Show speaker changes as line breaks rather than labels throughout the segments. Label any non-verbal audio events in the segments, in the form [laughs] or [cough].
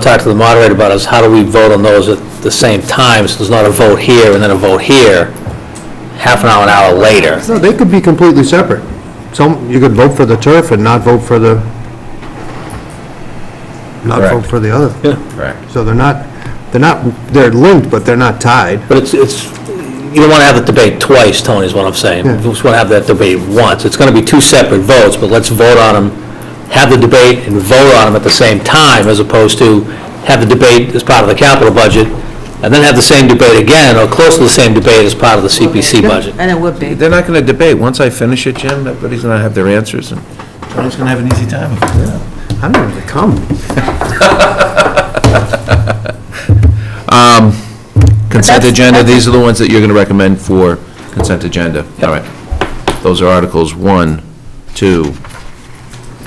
talk to the moderator about is how do we vote on those at the same time, so there's not a vote here and then a vote here, half an hour, an hour later.
No, they could be completely separate. Some, you could vote for the turf and not vote for the, not vote
Correct.
for the other.
Correct.
So they're not, they're not, they're linked, but they're not tied.
But it's, it's, you don't want to have the debate twice, Tony, is what I'm saying. You
Yeah.
just want to have that debate once. It's going to be two separate votes, but let's vote on them, have the debate and vote on them at the same time, as opposed to have the debate as part of the capital budget, and then have the same debate again, or close to the same debate as part of the CPC budget.
And it would be.
They're not going to debate. Once I finish it, Jim, everybody's going to have their answers, and Tony's going to have an easy time.
I don't know where they come.
Consent
That's-
agenda,
that's-
these are the ones that you're going to recommend for consent agenda. All right. Those are Articles 1, 2,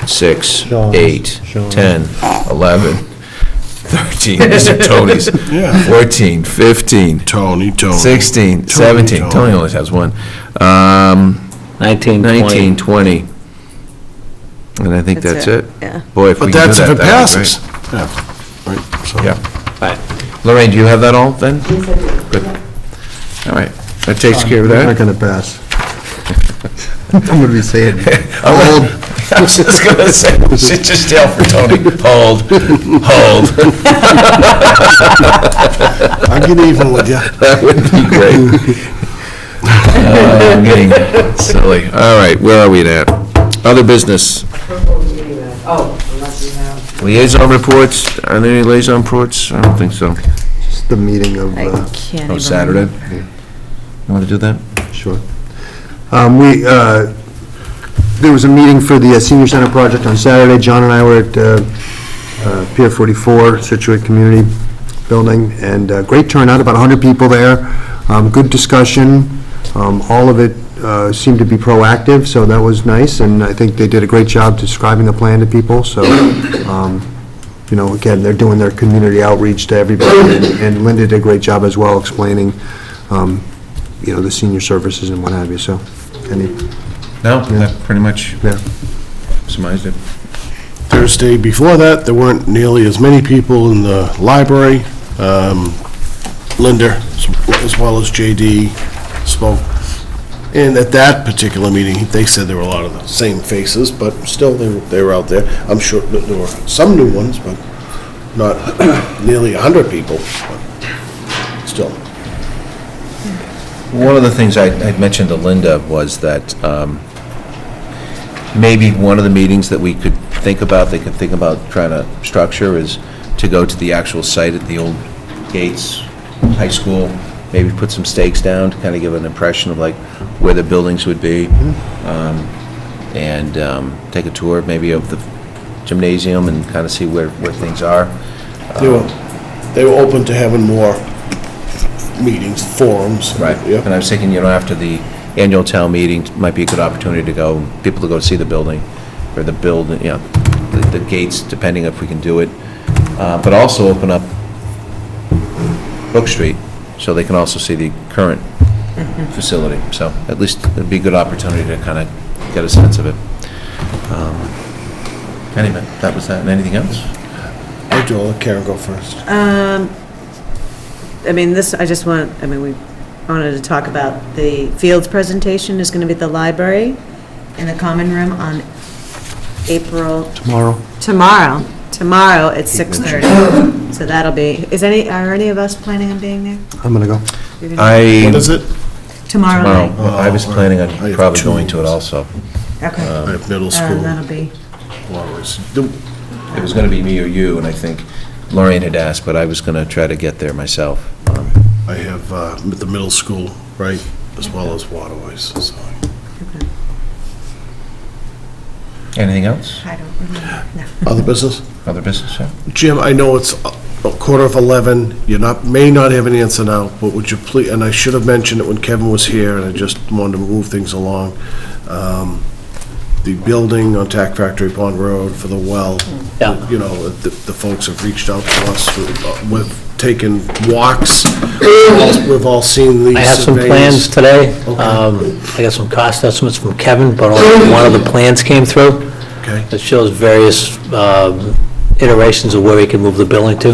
6,
Sean's,
8,
Sean's.
10, 11, 13,
[laughs]
Mr. Tony's, 14, 15,
Tony, Tony.
16, 17, Tony only has one, Um,
19, 20.
19, 20, and I think that's
That's
it.
it, yeah.
Boy, if we
But
can do
that's
that,
if
that'd be
it passes.
great.
Yeah, right, so.
Yeah.
Right.
Lorraine, do you have that all, then? Yes, I do. Good. All right, that takes care of
They're not
that.
gonna pass. [laughs] I'm gonna be saying,
Oh, Hold.
old,
[laughs] I was just gonna say, sit your tail for Tony. Hold, hold.
I get even with you.
[laughs] That would be great. Uh, I'm getting silly. All right, where are we at? Other business,
Oh, unless you have.
liaison reports, are there any liaison reports? I don't think so.
it's the meeting of,
I
uh,
can't even.
Oh, Saturday? You want to do that?
Sure. Um, We, uh, there was a meeting for the uh, senior center project on Saturday. John and I were at uh, uh, Pier 44, Situate Community Building, and uh, great turnout, about 100 people there, Um, good discussion. Um, All of it uh, seemed to be proactive, so that was nice, and I think they did a great job describing the plan to people, so, um, you know, again, they're doing their community outreach to everybody, and- and Linda did a great job as well explaining, um, you know, the senior services and what have you, so, any,
No, that pretty much
yeah.
summarized it.
Thursday before that, there weren't nearly as many people in the library. Um, Linda, as well as JD, spoke. And at that particular meeting, they said there were a lot of the same faces, but still, they were, they were out there. I'm sure that there were some new ones, but not [clears throat] nearly 100 people, but still.
One of the things I I'd mentioned to Linda was that um, maybe one of the meetings that we could think about, they could think about trying to structure is to go to the actual site at the old Gates High School, maybe put some stakes down to kind of give an impression of like where the buildings would be, um, and um, take a tour maybe of the gymnasium and kind of see where, where things are.
They were, they were open to having more meetings, forums.
Right,
Yep.
and I was thinking, you know, after the annual town meeting, might be a good opportunity to go, people to go see the building, or the build, you know, the the gates, depending if we can do it, Uh, but also open up Brook Street, so they can also see the current facility, so at least it'd be a good opportunity to kind of get a sense of it. Um, Anyway, that was that, and anything else?
Hey, Joel, let Karen go first.
Um, I mean, this, I just want, I mean, we wanted to talk about the Fields presentation is going to be at the library in the common room on April.
Tomorrow.
Tomorrow, tomorrow at 6:30. So that'll be, is any, are any of us planning on being there?
I'm gonna go.
You're gonna-
I,
What is it? Oh,
Tomorrow
tomorrow,
night.
I was planning on
I have
probably
two
going to it
meetings.
also. Uh,
Okay.
I have middle
Um,
school.
That'll be,
Always. Do-
It was going to be me or you, and I think Lorraine had asked, but I was going to try to get there myself. Um,
I have uh, the middle school, right, as well as Waterways, so.
Anything else?
I don't remember, no.
Other business?
Other business, sir?
Jim, I know it's a quarter of 11, you not, may not have an answer now, but would you please, and I should have mentioned it when Kevin was here, and I just wanted to move things along. Um, The building on Tac Factory Pond Road for the well.
Yeah.
You know, the the folks have reached out to us, uh, we've taken
[clears throat]
walks, We've all- we've all seen these surveys.
I have some plans today.
Okay.
Um, I got some cost estimates from Kevin, but only one of the plans came through.
Okay,
It shows various um, iterations of where we can move the building to.